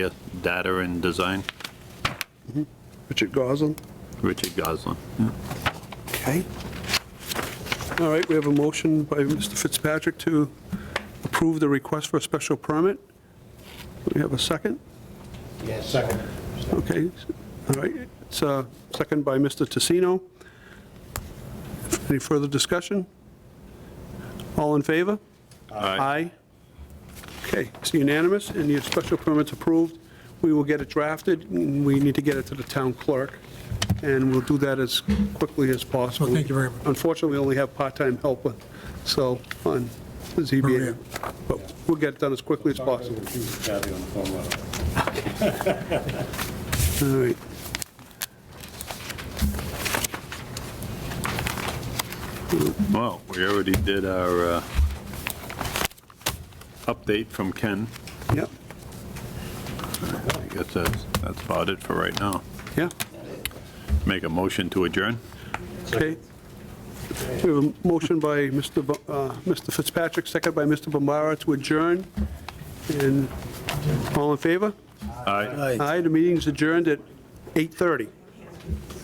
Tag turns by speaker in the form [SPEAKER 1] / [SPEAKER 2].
[SPEAKER 1] Data and Design,
[SPEAKER 2] Richard Goslin.
[SPEAKER 1] Richard Goslin.
[SPEAKER 2] Okay. All right, we have a motion by Mr. Fitzpatrick to approve the request for a special permit. Do we have a second?
[SPEAKER 3] Yeah, second.
[SPEAKER 2] Okay, all right, it's a second by Mr. Tassino. Any further discussion? All in favor? Aye. Okay, it's unanimous, and your special permit's approved. We will get it drafted, and we need to get it to the town clerk, and we'll do that as quickly as possible.
[SPEAKER 4] Well, thank you very much.
[SPEAKER 2] Unfortunately, we only have part-time help, uh, so, on the ZBA,
[SPEAKER 4] Maria.
[SPEAKER 2] but we'll get it done as quickly as possible.
[SPEAKER 3] Kathy on the phone
[SPEAKER 2] All
[SPEAKER 3] line.
[SPEAKER 2] right.
[SPEAKER 1] Well, we already did our uh, update from Ken.
[SPEAKER 2] Yep,
[SPEAKER 1] I guess that's, that's about it for right now.
[SPEAKER 2] yeah,
[SPEAKER 1] Make a motion to adjourn?
[SPEAKER 2] okay. We have a motion by Mr. Bu- uh, Mr. Fitzpatrick, second by Mr. Bombara to adjourn, and all in favor?
[SPEAKER 1] Aye.
[SPEAKER 2] Aye, the meeting's adjourned at 8:30.